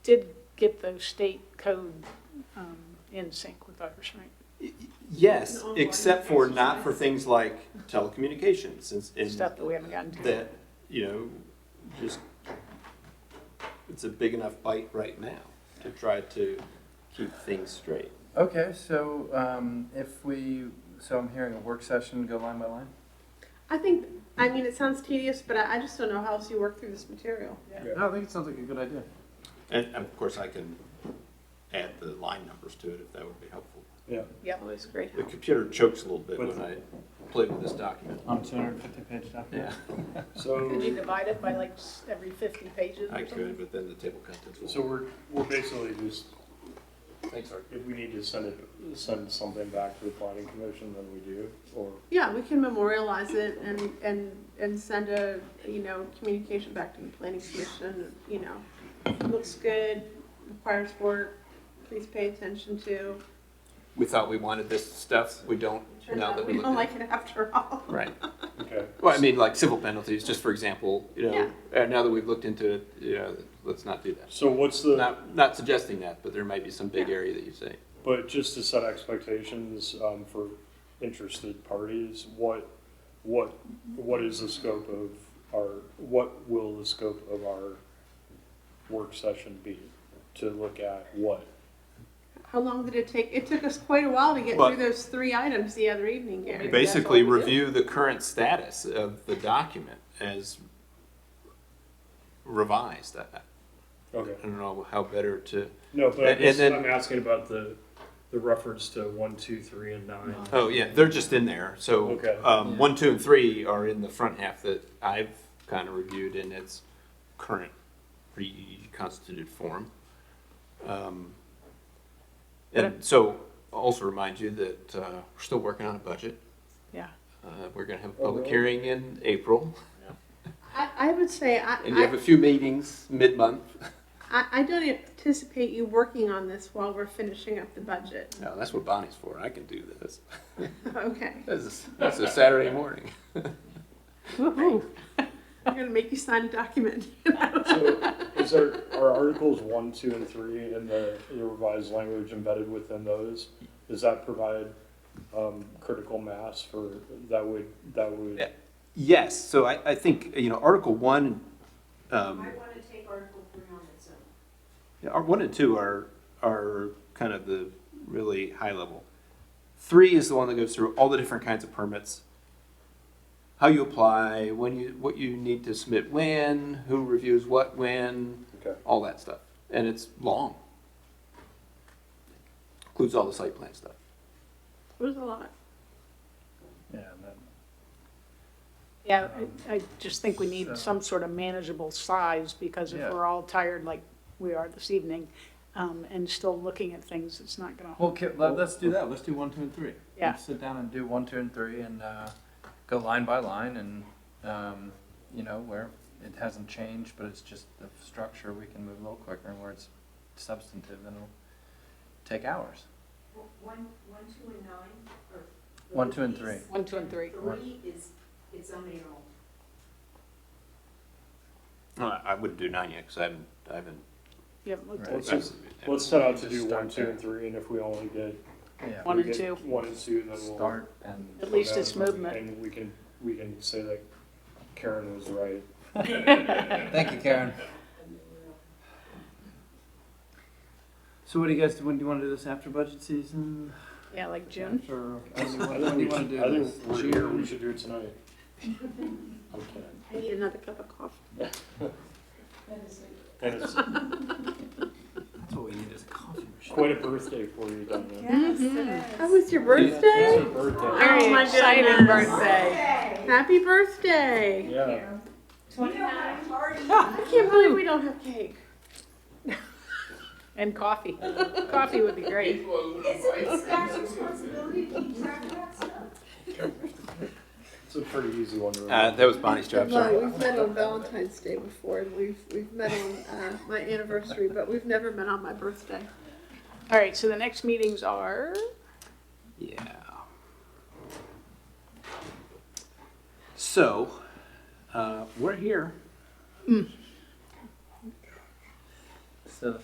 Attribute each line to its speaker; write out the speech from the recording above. Speaker 1: did get the state code um, in sync with ours, right?
Speaker 2: Y- y- Yes, except for not for things like telecommunications and, and
Speaker 1: Stuff that we haven't gotten to.
Speaker 2: that, you know, just, it's a big enough bite right now to try to keep things straight.
Speaker 3: Okay, so um, if we, so I'm hearing a work session go line by line?
Speaker 4: I think, I mean, it sounds tedious, but I, I just don't know how else you work through this material.
Speaker 3: No, I think it sounds like a good idea.
Speaker 2: And, and of course, I can add the line numbers to it if that would be helpful.
Speaker 3: Yeah.
Speaker 1: Yep.
Speaker 4: Always great.
Speaker 2: The computer chokes a little bit when I play with this document.
Speaker 3: On two hundred and fifty page document.
Speaker 2: Yeah,
Speaker 1: Could you
Speaker 5: So,
Speaker 1: divide it by like s- every 50 pages
Speaker 2: I
Speaker 1: or
Speaker 2: could,
Speaker 1: something?
Speaker 2: but then the table contents will.
Speaker 5: so we're, we're basically just,
Speaker 2: Thanks, Art.
Speaker 5: if we need to send it, send something back to the planning commission, then we do, or,
Speaker 4: Yeah, we can memorialize it and, and, and send a, you know, communication back to the planning commission, you know. Looks good, requires work, please pay attention to.
Speaker 2: We thought we wanted this stuff, we don't,
Speaker 4: Turns
Speaker 2: now
Speaker 4: out
Speaker 2: that we
Speaker 4: We don't
Speaker 2: look at
Speaker 4: like it after all.
Speaker 2: Right.
Speaker 5: okay.
Speaker 2: Well, I mean, like civil penalties, just for example, you know, uh, now that we've looked into it, you know, let's not do that.
Speaker 5: So what's the,
Speaker 2: Not, not suggesting that, but there might be some big area that you say.
Speaker 5: but just to set expectations, um, for interested parties, what, what, what is the scope of our, what will the scope of our work session be? To look at what?
Speaker 4: How long did it take? It took us quite a while to get
Speaker 2: But-
Speaker 4: through those three items the other evening, Gary.
Speaker 2: Basically, review the current status of the document as revised. I
Speaker 5: Okay.
Speaker 2: I don't know how better to,
Speaker 5: No, but I'm
Speaker 2: And- and
Speaker 5: just-
Speaker 2: then-
Speaker 5: I'm asking about the, the reference to one, two, three, and nine.
Speaker 2: oh, yeah, they're just in there. So,
Speaker 5: Okay.
Speaker 2: um, one, two, and three are in the front half that I've kind of reviewed in its current reconstituted form. Um, And so also remind you that uh, we're still working on a budget.
Speaker 1: Yeah.
Speaker 2: Uh, We're going to have a
Speaker 5: Oh,
Speaker 2: public
Speaker 5: really?
Speaker 2: hearing in April,
Speaker 4: I, I would say I,
Speaker 2: and you have
Speaker 4: I,
Speaker 2: a few meetings mid-month.
Speaker 4: I I don't anticipate you working on this while we're finishing up the budget.
Speaker 2: No, that's what Bonnie's for. I can do this.
Speaker 4: Okay.
Speaker 2: This is- That's a Saturday morning.
Speaker 4: Woohoo. I'm gonna make you sign a document.
Speaker 5: So is there, are articles one, two, and three in the the revised language embedded within those? Does that provide um, critical mass for, that would, that
Speaker 2: Yeah.
Speaker 5: would,
Speaker 2: Yes, so I, I think, you know, Article One, um,
Speaker 6: I want to take Article three on its own.
Speaker 2: yeah, Ar- one and two are, are kind of the really high level. Three is the one that goes through all the different kinds of permits. How you apply, when you, what you need to submit when, who reviews what when,
Speaker 5: okay,
Speaker 2: all that stuff. And it's long. Includes all the site plan stuff.
Speaker 4: It was a lot.
Speaker 3: Yeah, and then-
Speaker 1: Yeah, I I just think we need
Speaker 3: So-
Speaker 1: some sort of manageable size, because if
Speaker 3: Yeah.
Speaker 1: we're all tired like we are this evening, um, and still looking at things, it's not gonna,
Speaker 3: Well, ki- let, us do that, let's do one, two, and three.
Speaker 1: Yeah.
Speaker 3: Let's sit down and do one, two, and three, and uh, go line by line, and, um, you know, where it hasn't changed, but it's just the structure, we can move a little quicker, and where it's substantive, then it'll take hours.
Speaker 6: W- One, one, two, and nine, or.
Speaker 3: One, two, and three.
Speaker 6: is-
Speaker 1: One, two, and three.
Speaker 6: Three is its own animal.
Speaker 2: I wouldn't do nine yet, because I haven't, I haven't.
Speaker 1: you haven't looked
Speaker 5: Let's
Speaker 1: at
Speaker 5: just, let's set out to do
Speaker 3: Just start
Speaker 5: one, two, and
Speaker 3: there.
Speaker 5: three, and if we only get.
Speaker 3: Yeah.
Speaker 1: One
Speaker 5: we
Speaker 1: and
Speaker 5: get
Speaker 1: two.
Speaker 5: One and two, then we'll.
Speaker 3: Start and,
Speaker 1: At least it's movement.
Speaker 5: And we can, we can say that Karen was right.
Speaker 3: thank you, Karen. So what do you guys, when do you want to do this after budget season?
Speaker 1: yeah, like June.
Speaker 3: After,
Speaker 5: I think we should, I think we're here, we should do it tonight. Okay.
Speaker 4: I need another cup of coffee.
Speaker 5: And it's
Speaker 3: That's what we need is a coffee machine.
Speaker 5: quite a birthday for you down there.
Speaker 4: That was your birthday?
Speaker 5: It's her birthday.
Speaker 4: Oh my
Speaker 1: exciting
Speaker 4: goodness.
Speaker 1: birthday.
Speaker 4: Happy birthday.
Speaker 5: Yeah.
Speaker 6: Twenty-nine.
Speaker 4: I can't believe we don't have cake.
Speaker 1: And coffee. Coffee would be great.
Speaker 6: Isn't it staff's responsibility to keep track of that stuff?
Speaker 5: It's a pretty easy one. to
Speaker 2: Uh,
Speaker 5: remember.
Speaker 2: that was Bonnie's job, sorry.
Speaker 4: We've met on Valentine's Day before, and we've, we've met on, uh, my anniversary, but we've never met on my birthday.
Speaker 1: All right, so the next meetings are,
Speaker 2: Yeah. So, uh, we're here.